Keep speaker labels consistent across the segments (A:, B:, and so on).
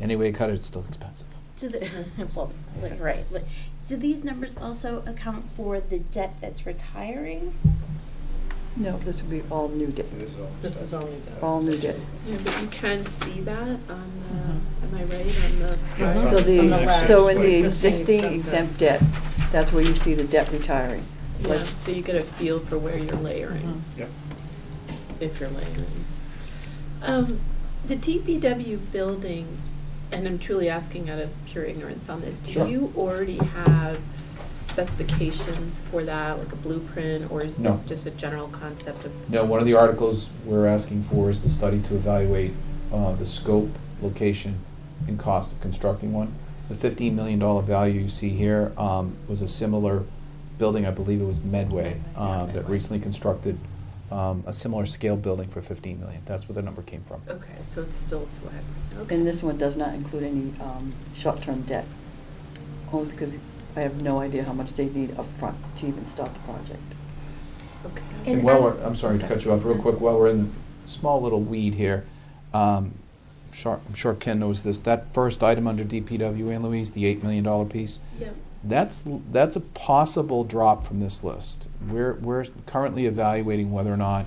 A: Any way you cut it, it's still expensive.
B: Do the, well, like, right, like, do these numbers also account for the debt that's retiring?
C: No, this would be all new debt,
D: This is only good.
C: all new debt.
E: Yeah, but you can see that on
A: Mm-hmm.
E: the, am I right, on the
C: So
E: prior?
D: On the
C: the,
D: left.
C: so in the
D: Existing
C: existing exempt
D: exempt
C: debt, that's where you see the debt retiring.
E: Yeah, so you get a feel for where you're layering,
A: Mm-hmm.
F: Yep.
E: if you're layering. Um, The DPW building, and I'm truly asking out of pure ignorance on this, do
A: Sure.
E: you already have specifications for that, like a blueprint, or is
A: No.
E: this just a general concept of?
A: No, one of the articles we're asking for is the study to evaluate uh, the scope, location, and cost of constructing one. The $15 million value you see here um, was a similar building, I believe it was Medway, uh, that recently constructed um, a similar scale building for 15 million. That's where the number came from.
E: Okay, so it's still swag, okay.
C: And this one does not include any um, short-term debt, only because I have no idea how much they need upfront to even start the project.
E: Okay.
A: And
B: And
A: while
B: I-
A: we're, I'm sorry to cut you off real quick, while we're in the small little weed here, um, I'm sure- I'm sure Ken knows this, that first item under DPW, Ann Louise, the $8 million piece,
E: Yep.
A: that's, l- that's a possible drop from this list. We're, we're currently evaluating whether or not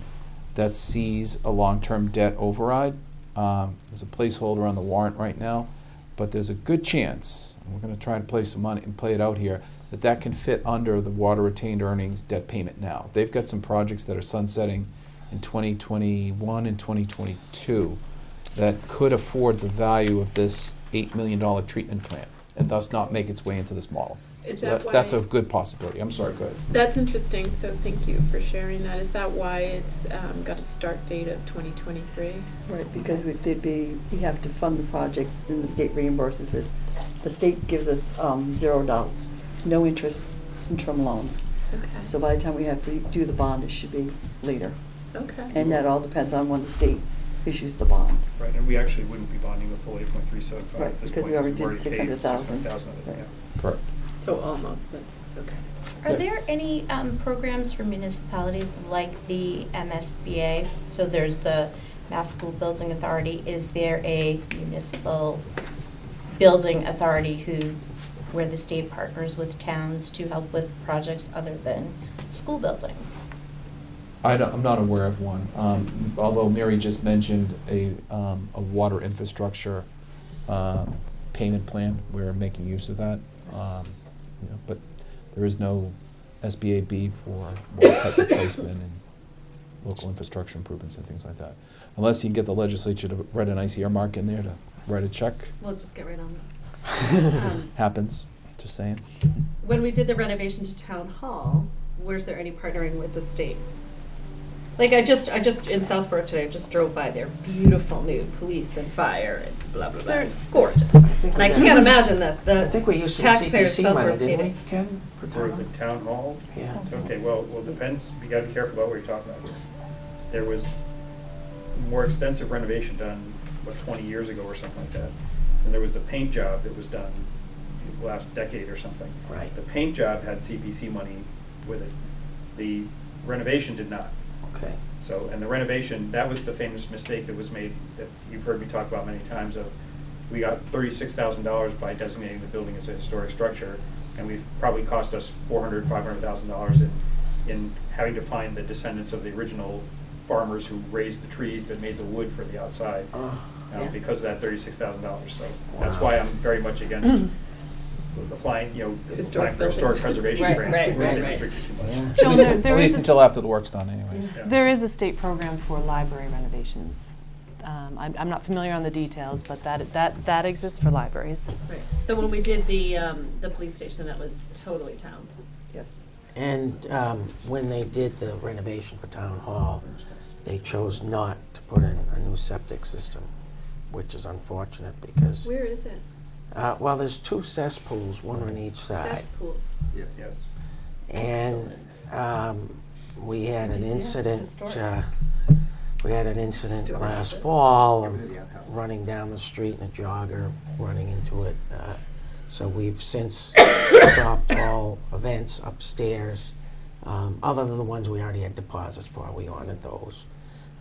A: that sees a long-term debt override. Um, There's a placeholder on the warrant right now, but there's a good chance, and we're gonna try to play some money and play it out here, that that can fit under the water retained earnings debt payment now. They've got some projects that are sunsetting in 2021 and 2022 that could afford the value of this $8 million treatment plant and thus not make its way into this model.
E: Is
A: So
E: that
A: That's
E: why-
A: a good possibility. I'm sorry, go ahead.
E: That's interesting, so thank you for sharing that. Is that why it's um, got a start date of 2023?
C: Right, because we- they'd be, we have to fund the project, and the state reimburses us. The state gives us um, zero dollars, no interest interim loans.
E: Okay.
C: So by the time we have to do the bond, it should be later.
E: Okay.
C: And uh, that all depends on when the state issues the bond.
F: Right, and we actually wouldn't be bonding the full eight point three seven five
C: Right,
F: at this
C: because
F: point.
C: we already did
F: paid
C: 600,000.
F: 600,000 of it,
C: Right.
F: yeah.
A: Correct.
E: So almost, but, okay.
B: Are
A: Yes.
B: there any um, programs for municipalities like the MSBA? So there's the Mass School Building Authority. Is there a municipal building authority who, where the state partners with towns to help with projects other than school buildings?
A: I don't, I'm not aware of one, um, although Mary just mentioned a, um, a water infrastructure, uh, payment plan, we're making use of that. Um, you know, but there is no SBAB for water pipe replacement and local infrastructure improvements and things like that. Unless you can get the legislature to write a nice earmark in there to write a check,
G: We'll just get right on that. Um,
A: happens, just saying.
G: When we did the renovation to town hall, was there any partnering with the state? Like I just, I just, in Southborough today, I just drove by their beautiful new police and fire and blah, blah, blah. It's gorgeous.
H: think
G: And I
H: we
G: can't
H: had-
G: imagine that the
H: I think we used some
G: taxpayers
H: CPC money,
G: celebrating.
H: didn't we, Ken? for
F: For
H: town?
F: the town hall?
H: Yeah.
F: Okay, well, well, depends, we gotta be careful about what you're talking about. There was more extensive renovation done, what, twenty years ago or something like that. And there was the paint job that was done last decade or something.
H: Right.
F: The paint job had CPC money with it. The renovation did not.
H: Okay.
F: So, and the renovation, that was the famous mistake that was made, that you've heard me talk about many times of, we got thirty-six thousand dollars by designating the building as a historic structure, and we've probably cost us four hundred, five hundred thousand dollars in, in having to find the descendants of the original farmers who raised the trees that made the wood for the outside,
H: Oh,
F: um, because of that thirty-six thousand dollars. So that's
H: Wow.
F: why I'm very much against
I: Mm-hmm.
F: applying, you know,
E: Historic
F: applying for historic
E: buildings.
F: preservation
G: Right,
F: grants,
G: right,
F: because they
G: right, right.
F: restrict you too much.
H: yeah.
A: At
I: Joan,
A: least-
I: there- there
A: At
I: is
A: least
I: a-
A: until after the work's done anyways.
F: Yeah.
I: There is a state program for library renovations. Um, I'm, I'm not familiar on the details, but that, that, that exists for libraries.
G: Right. So when we did the, um, the police station, that was totally town.
C: Yes.
H: And um, when they did the renovation for town hall, they chose not to put in a new septic system, which is unfortunate because,
E: Where is it?
H: uh, well, there's two cesspools, one on each
C: Uh,
H: side.
E: Cesspools.
F: Yes.
H: And um, we had an
G: Somebody said, "Yes, it's
H: incident,
G: historic."
H: uh, we had an incident
E: Historic
H: last
E: system.
H: fall of running down the street and a jogger running into it. uh, So we've since stopped all events upstairs, um, other than the ones we already had deposits for, we honored those.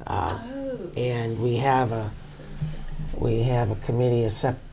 H: Uh,
E: Oh.
H: And we have a, we have a committee, a sep-